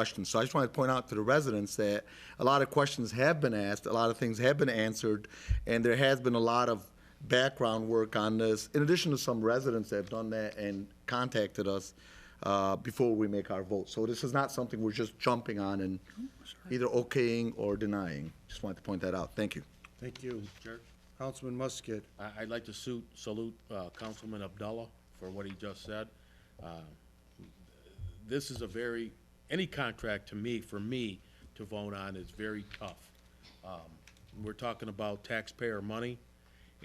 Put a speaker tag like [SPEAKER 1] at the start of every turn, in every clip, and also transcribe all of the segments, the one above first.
[SPEAKER 1] questions. So I just wanted to point out to the residents that a lot of questions have been asked, a lot of things have been answered, and there has been a lot of background work on this, in addition to some residents that have done that and contacted us uh, before we make our vote. So this is not something we're just jumping on and either okaying or denying. Just wanted to point that out. Thank you.
[SPEAKER 2] Thank you. Councilman Musket,
[SPEAKER 3] I, I'd like to suit, salute, uh, Councilman Abdullah for what he just said. Uh, This is a very, any contract to me, for me, to vote on is very tough. Um, We're talking about taxpayer money,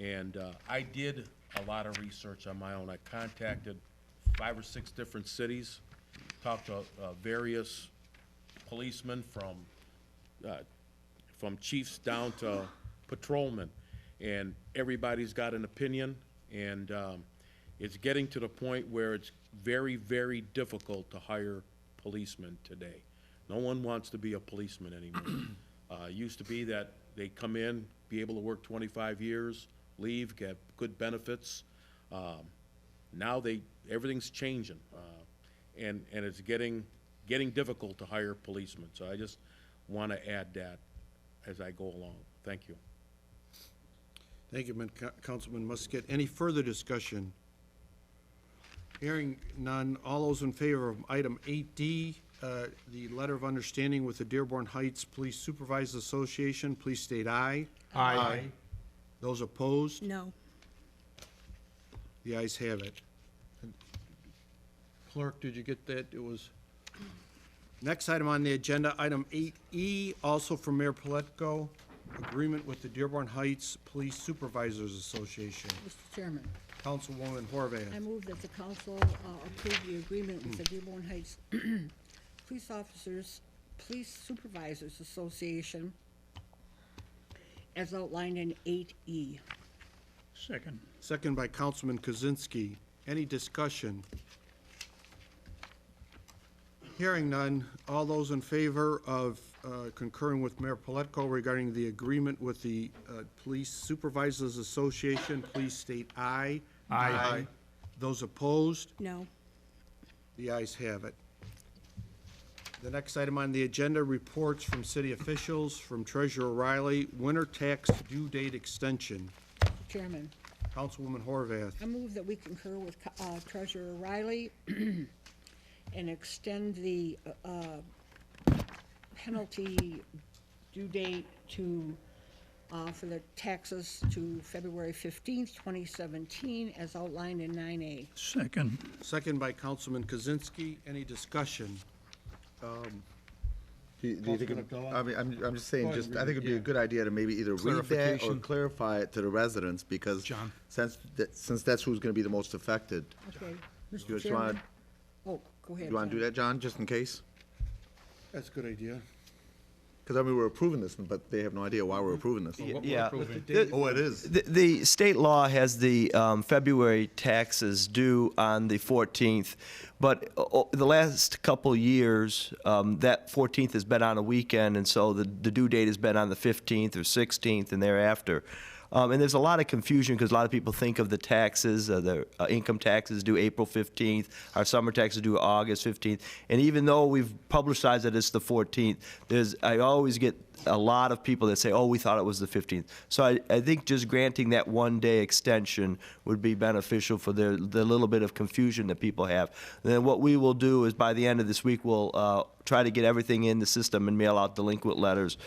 [SPEAKER 3] and, uh, I did a lot of research on my own. I contacted five or six different cities, talked to, uh, various policemen from, uh, from chiefs down to patrolmen, and everybody's got an opinion, and um, it's getting to the point where it's very, very difficult to hire policemen today. No one wants to be a policeman anymore. Uh, it used to be that they come in, be able to work 25 years, leave, get good benefits. Um, now they, everything's changing, uh, and, and it's getting, getting difficult to hire policemen. So I just want to add that as I go along. Thank you.
[SPEAKER 2] thank you, Man- Ca- Councilman Musket. Any further discussion? Hearing none, all those in favor of item 8D, uh, the letter of understanding with the Dearborn Heights Police Supervisors Association, please state aye. Aye. Those opposed?
[SPEAKER 4] No.
[SPEAKER 2] The ayes have it. Clerk, did you get that? It was... Next item on the agenda, item 8E, also from Mayor Pletko, agreement with the Dearborn Heights Police Supervisors Association.
[SPEAKER 5] Mr. Chairman,
[SPEAKER 2] Councilwoman Horvath.
[SPEAKER 5] I move that the council uh, approve the agreement with the Dearborn Heights Police Officers, Police Supervisors Association as outlined in eight E.
[SPEAKER 6] Second.
[SPEAKER 2] Second by Councilman Kozinski. Any discussion? Hearing none. All those in favor of uh, concurring with Mayor Pletko regarding the agreement with the uh, Police Supervisors Association, please state aye. Aye. Those opposed?
[SPEAKER 4] No.
[SPEAKER 2] The ayes have it. The next item on the agenda, reports from city officials, from Treasurer Riley, winter tax due date extension.
[SPEAKER 5] Mr. Chairman,
[SPEAKER 2] Councilwoman Horvath.
[SPEAKER 5] I move that we concur with Co- uh, Treasurer Riley and extend the uh, penalty due date to, uh, for the taxes to February 15th, 2017, as outlined in 9A.
[SPEAKER 6] Second.
[SPEAKER 2] Second by Councilman Kozinski. Any discussion?
[SPEAKER 1] Do you- do you think it-
[SPEAKER 2] Councilman Abdullah?
[SPEAKER 1] I mean, I'm, I'm just saying,
[SPEAKER 2] ahead,
[SPEAKER 1] just, I
[SPEAKER 2] read
[SPEAKER 1] think
[SPEAKER 2] it,
[SPEAKER 1] it'd be a
[SPEAKER 2] yeah.
[SPEAKER 1] good idea to maybe either read that or
[SPEAKER 6] Clarification.
[SPEAKER 1] clarify it to the residents, because
[SPEAKER 6] John.
[SPEAKER 1] since, that- since that's who's gonna be the most affected.
[SPEAKER 5] Okay,
[SPEAKER 1] you
[SPEAKER 5] Mr.
[SPEAKER 1] wanna-
[SPEAKER 5] Chairman? Oh, go ahead.
[SPEAKER 1] You wanna do
[SPEAKER 5] John.
[SPEAKER 1] that, John, just in case?
[SPEAKER 2] That's a good idea.
[SPEAKER 1] Because I mean, we're approving this, but they have no idea why we're approving this.
[SPEAKER 7] Yeah.
[SPEAKER 1] Oh, it is.
[SPEAKER 7] The, the state law has the um, February taxes due on the 14th, but o- o- the last couple years, um, that 14th has been on a weekend, and so the, the due date has been on the 15th or 16th and thereafter. Um, and there's a lot of confusion because a lot of people think of the taxes, uh, the uh, income taxes due April 15th, our summer taxes due August 15th. And even though we've publicized that it's the 14th, there's, I always get a lot of people that say, oh, we thought it was the 15th. So I, I think just granting that one-day extension would be beneficial for the, the little bit of confusion that people have. Then what we will do is by the end of this week, we'll uh, try to get everything in the system and mail out delinquent letters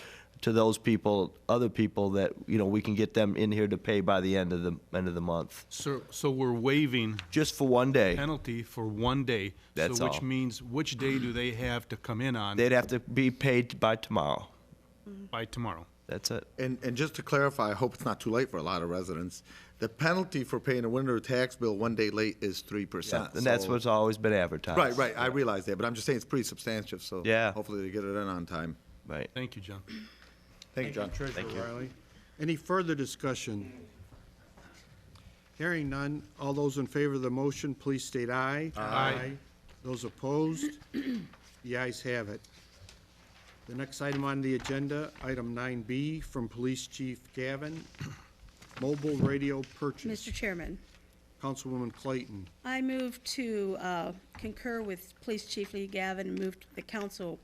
[SPEAKER 7] to those people, other people that, you know, we can get them in here to pay by the end of the, end of the month,
[SPEAKER 8] So, so we're waiving
[SPEAKER 7] just for one day.
[SPEAKER 8] penalty for one day.
[SPEAKER 7] That's
[SPEAKER 8] So which
[SPEAKER 7] all.
[SPEAKER 8] means, which day do they have to come in on
[SPEAKER 7] They'd have to be paid by tomorrow.
[SPEAKER 8] by tomorrow?
[SPEAKER 7] That's it.
[SPEAKER 1] And, and just to clarify, I hope it's not too late for a lot of residents. The penalty for paying a winter tax bill one day late is three percent.
[SPEAKER 7] And that's what's always been advertised.
[SPEAKER 1] Right, right, I realize that, but I'm just saying it's pretty substantive, so.
[SPEAKER 7] Yeah.
[SPEAKER 1] Hopefully they get it in on time.
[SPEAKER 7] Right.
[SPEAKER 8] Thank you, John.
[SPEAKER 1] Thank you, John.
[SPEAKER 2] Treasurer Riley. Any further discussion? Hearing none. All those in favor of the motion, please state aye. Aye. Those opposed? The ayes have it. The next item on the agenda, item 9B, from Police Chief Gavin, mobile radio purchase.
[SPEAKER 4] Mr. Chairman,
[SPEAKER 2] Councilwoman Clayton.
[SPEAKER 4] I move to uh, concur with Police Chief Lee Gavin and move the council